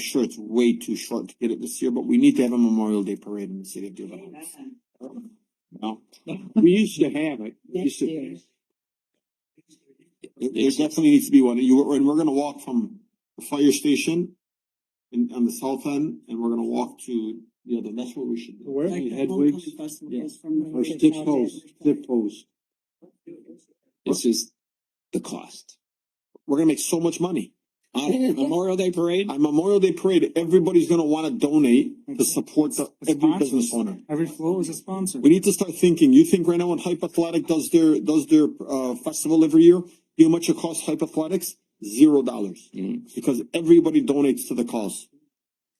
sure it's way too short to get it this year, but we need to have a Memorial Day parade in the city of Dearborn Heights. No, we used to have it. We used Next to- year. There there definitely needs to be one. You, and we're gonna walk from the fire station in, on the south end, and we're gonna walk to the other, that's what we should do. Where? Like the Hedwig's? homecoming festival Yeah. goes from the- Or stiff toes, stiff toes. It's just the cost. We're gonna make so much money. On a Memorial Day parade, On Memorial Day parade, everybody's gonna wanna donate to support the, every business owner. Every flow is a sponsor. We need to start thinking. You think right now when Hype Athletic does their, does their, uh, festival every year, you know how much it costs Hype Athletics? Zero dollars. Mm. Because everybody donates to the cause.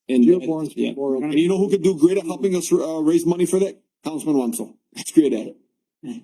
and, Dearborn's yeah, Memorial. And you know who could do great at helping us, uh, raise money for that? Councilman Wansel. He's great at it.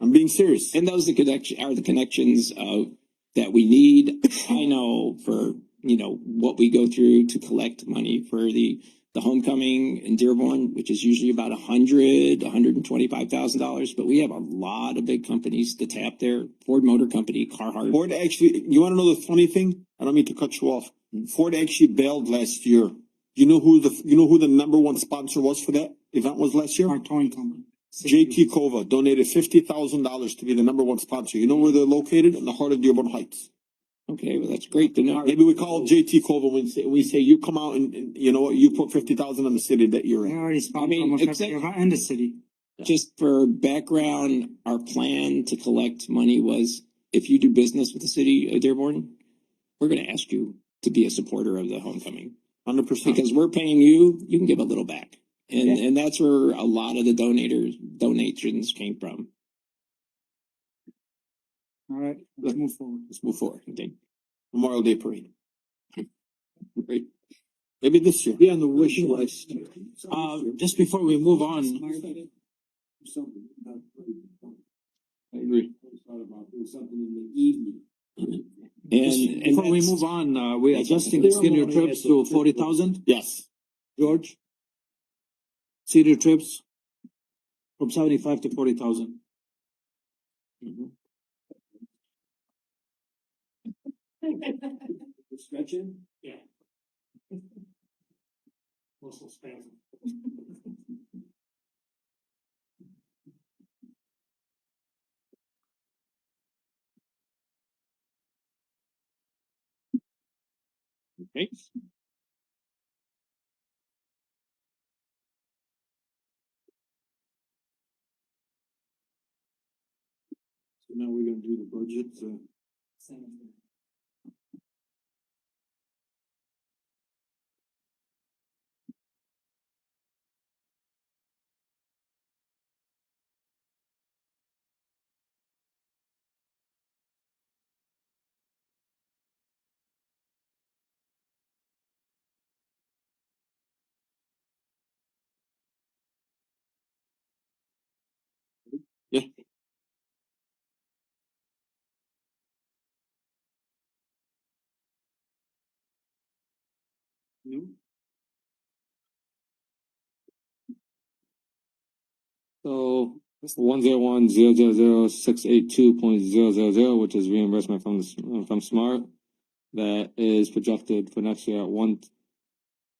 I'm being serious. and those the connection are the connections of that we need. I know for you know what we go through to collect money for the the homecoming in Dearborn, which is usually about a hundred, one hundred and twenty five thousand dollars, but we have a lot of big companies to tap there. Ford Motor Company, Carhartt. Ford actually, you wanna know the funny thing? I don't mean to cut you off. Ford actually bailed last year. You know who the, you know who the number one sponsor was for that event was last year? Our towing company. JT Kova donated fifty thousand dollars to be the number one sponsor. You know where they're located? In the heart of Dearborn Heights. Okay, well that's great to know. Maybe we call JT Kova when say, we say, you come out and, and you know what, you put fifty thousand on the city that you're They in. already I sponsored mean, almost every except- event in the city. Just for background, our plan to collect money was if you do business with the city of Dearborn, we're gonna ask you to be a supporter of the homecoming. Hundred percent. Because we're paying you, you can give a little back. And and that's where a lot of the donators donations came from. All right, let's move forward. Let's move forward. I think. Memorial Day parade. Great. Maybe this year. be on the wish list. Uh, just before we move on, Smart. I agree. And and before we that's- move on, uh, we're adjusting the senior trips to forty thousand, Yes. George? Senior trips from seventy-five to forty thousand. Stretching? Yeah. Okay. So now we're gonna do the budget, uh. So that's the one zero one zero zero zero six eight two point zero zero zero, which is reimbursement from the- from Smart. That is projected for next year at one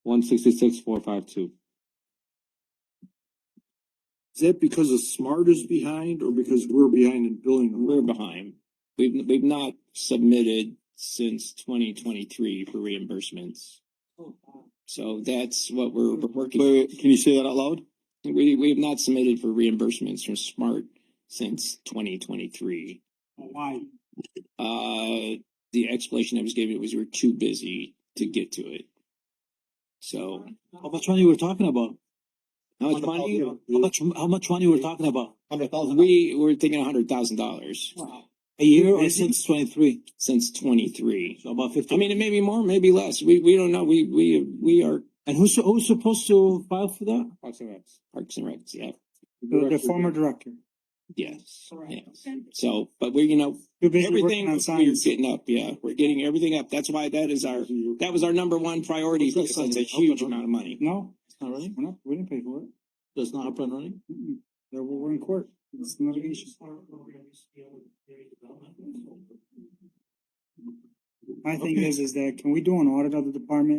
one sixty six four five two. Is that because the smart is behind or because we're behind in billing? we're behind. We've we've not submitted since twenty twenty three for reimbursements. So that's what we're we're working. Wait, wait, can you say that out loud? We, we have not submitted for reimbursements from SMART since twenty twenty-three. Why? Uh, the explanation I was giving was we were too busy to get to it. So, How much money we're talking about? how much money? money? How much, how much money we're talking about? Hundred thousand. We were thinking hundred thousand dollars A year or since twenty-three? since twenty-three. So about I fifty. mean, it may be more, maybe less. We, we don't know. We, we, we are And who's, who's supposed to file for that? Parks and Recs, yeah, The the former director. yes. Correct. yeah. So, but we're, you know, You're basically working everything on we're science. getting up, yeah, we're getting everything up. That's why that is our That was our number one priority because that's a huge amount of money. No, It's not running? we're not, we didn't pay for it. That's not up and running? Mm-mm. There, we're we're in court. It's litigation. My thing is, is that can we do an audit of the department